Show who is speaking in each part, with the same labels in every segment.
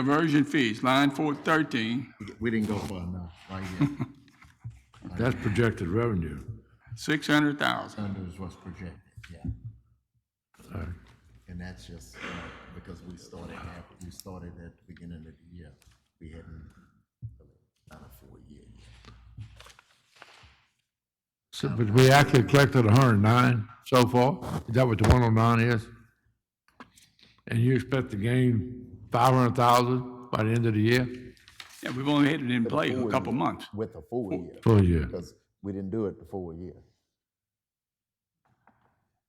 Speaker 1: Diversion fees, line four thirteen,
Speaker 2: We didn't go far enough, right here.
Speaker 3: That's projected revenue.
Speaker 1: six hundred thousand.
Speaker 2: Under is what's projected, yeah.
Speaker 3: All right.
Speaker 2: And that's just, you know, because we started, half- we started at the beginning of the year. We hadn't really done a full year yet.
Speaker 3: So, but we actually collected hundred and nine so far. Is that what the one oh nine is? And you expect to gain five hundred thousand by the end of the year?
Speaker 1: Yeah, we've only had it in play a
Speaker 2: full
Speaker 1: couple
Speaker 2: year.
Speaker 1: months.
Speaker 2: With a full year,
Speaker 3: Full year.
Speaker 2: because we didn't do it the full year.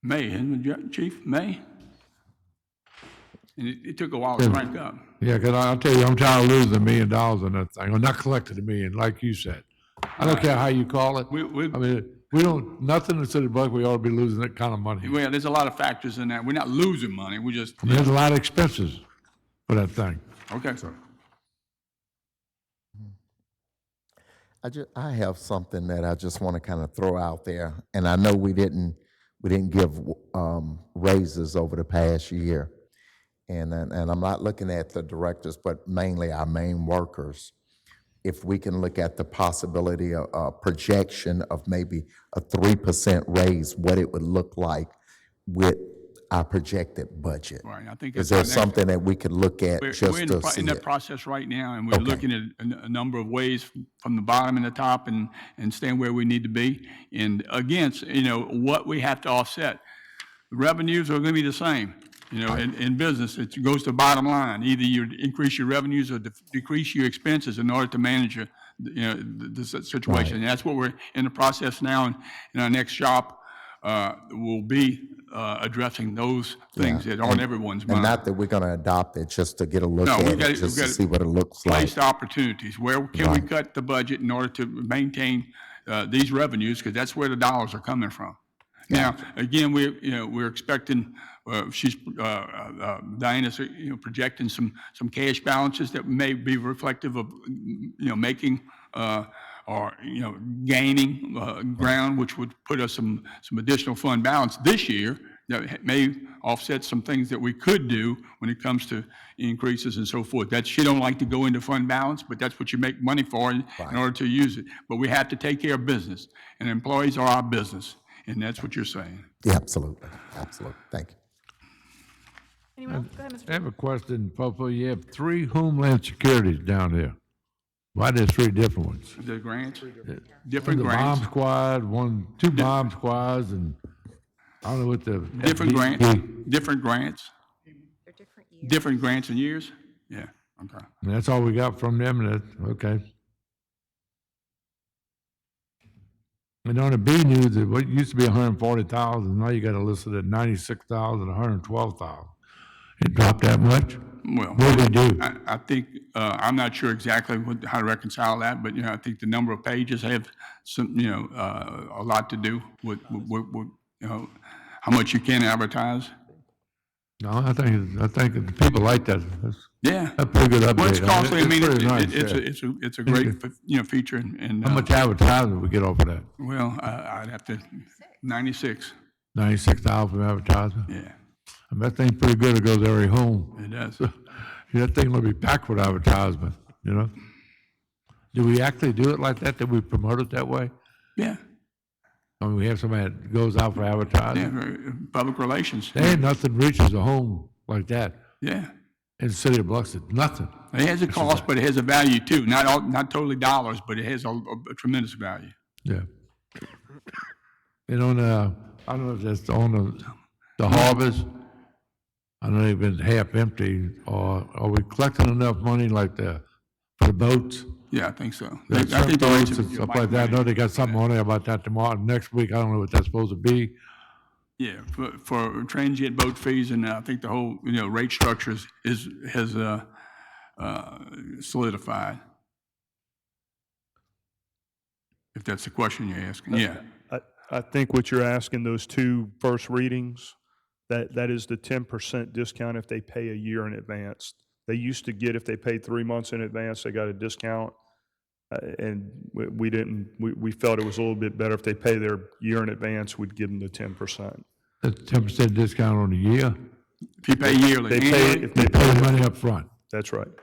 Speaker 1: May, isn't it, Ju- Chief, May? And it, it took a while to crank up.
Speaker 3: Yeah, because I'll tell you, I'm tired of losing a million dollars on that thing, or not collecting a million, like you said. I don't care how you call it.
Speaker 1: We, we,
Speaker 3: I mean, we don't, nothing in the city of Buck, we ought to be losing that kind of money.
Speaker 1: well, there's a lot of factors in that. We're not losing money, we're just,
Speaker 3: There's a lot of expenses for that thing.
Speaker 1: okay.
Speaker 2: I just, I have something that I just want to kind of throw out there, and I know we didn't, we didn't give um, raises over the past year, and and and I'm not looking at the directors, but mainly our main workers. If we can look at the possibility of a projection of maybe a three percent raise, what it would look like with our projected budget.
Speaker 1: Right, I think. that's
Speaker 2: Is there
Speaker 1: our next-
Speaker 2: something that we could look at
Speaker 1: We're,
Speaker 2: just
Speaker 1: we're in, the
Speaker 2: to
Speaker 1: pro-
Speaker 2: see
Speaker 1: in that
Speaker 2: it?
Speaker 1: process right now, and we're looking at a, n- a number of ways from the bottom and the top, and and staying where we need to be, and against you know what we have to offset. Revenues are going to be the same, you know, in, in business, it goes to bottom line. Either you increase your revenues or def- decrease your expenses in order to manage your, you know, the, the situation. And that's what we're in the process now, and, and our next shop uh, will be uh, addressing those things that aren't everyone's mind.
Speaker 2: And not that we're going to adopt it, just to get a look
Speaker 1: No,
Speaker 2: at
Speaker 1: we
Speaker 2: it,
Speaker 1: gotta- we
Speaker 2: just to
Speaker 1: gotta
Speaker 2: see what it looks like.
Speaker 1: placed opportunities. Where can we cut the budget in order to maintain uh, these revenues? Because that's where the dollars are coming from. Now, again, we, you know, we're expecting, uh, she's, uh, uh, Diana's, uh, you know, projecting some, some cash balances that may be reflective of, you know, making uh, or, you know, gaining uh, ground, which would put us some, some additional fund balance this year that ha- may offset some things that we could do when it comes to increases and so forth. That, she don't like to go into fund balance, but that's what you make money for in, in order to use it. But we have to take care of business, and employees are our business, and that's what you're saying.
Speaker 2: Yeah, absolutely, absolutely. Thank you.
Speaker 4: Anyone else? Go ahead, Mr.
Speaker 3: I have a question, Popo. You have three Homeland Securities down there. Why there's three different ones?
Speaker 1: The grants,
Speaker 3: The
Speaker 1: different
Speaker 3: bomb
Speaker 1: grants,
Speaker 3: squad, one, two bomb squads, and I don't know what the.
Speaker 1: different grants,
Speaker 3: FDP
Speaker 1: different grants,
Speaker 4: They're different years.
Speaker 1: different grants and years? Yeah, okay.
Speaker 3: And that's all we got from them, and that, okay. And on the B news, it what used to be hundred and forty thousand, now you got it listed at ninety-six thousand, hundred and twelve thousand. It dropped that much?
Speaker 1: Well.
Speaker 3: What did they do?
Speaker 1: I, I think, uh, I'm not sure exactly what, how to reconcile that, but, you know, I think the number of pages have some, you know, uh, a lot to do with, with, with, you know, how much you can advertise.
Speaker 3: No, I think, it's- I think the people like that. That's
Speaker 1: Yeah.
Speaker 3: a pretty good update.
Speaker 1: Well, it's costly, I mean,
Speaker 3: pretty nice,
Speaker 1: it- it's,
Speaker 3: yeah.
Speaker 1: a- it's a, it's a great, you know, feature, and- and,
Speaker 3: How
Speaker 1: uh,
Speaker 3: much advertising we get off of that?
Speaker 1: well, I- I'd have to, 96,
Speaker 3: Ninety-six thousand advertising?
Speaker 1: yeah,
Speaker 3: And that thing's pretty good, it goes every home.
Speaker 1: it does.
Speaker 3: That thing will be packed with advertisement, you know? Do we actually do it like that? Do we promote it that way?
Speaker 1: Yeah,
Speaker 3: I mean, we have somebody that goes out for
Speaker 1: yeah,
Speaker 3: advertising.
Speaker 1: very- uh, public relations,
Speaker 3: There ain't nothing reaches a home like that
Speaker 1: yeah.
Speaker 3: in the city of Biloxi, nothing.
Speaker 1: It has a cost, but it has a value too, not all, not totally dollars, but it has a a tremendous value.
Speaker 3: Yeah. And on, uh, I don't know if that's on the, the harvest, I know they've been half empty, or are we collecting enough money like the, for the boats?
Speaker 1: Yeah, I think so. I
Speaker 3: Like
Speaker 1: think- I think the rates
Speaker 3: boats
Speaker 1: of-
Speaker 3: and Stuff like that, I know they got something on there about that tomorrow, next week, I don't know what that's supposed to be.
Speaker 1: Yeah, for, for transient boat fees and I think the whole, you know, rate structures is, has, uh, uh, solidified. If that's the question you're asking, yeah.
Speaker 5: I, I think what you're asking, those two first readings, that, that is the ten percent discount if they pay a year in advance. They used to get, if they paid three months in advance, they got a discount. Uh, And we, we didn't, we, we felt it was a little bit better if they pay their year in advance, we'd give them the ten percent.
Speaker 3: That's ten percent discount on the year,
Speaker 1: If you pay yearly,
Speaker 5: They pay,
Speaker 1: annually,
Speaker 5: if they
Speaker 3: pay the
Speaker 5: pay,
Speaker 3: money up front.
Speaker 5: that's right.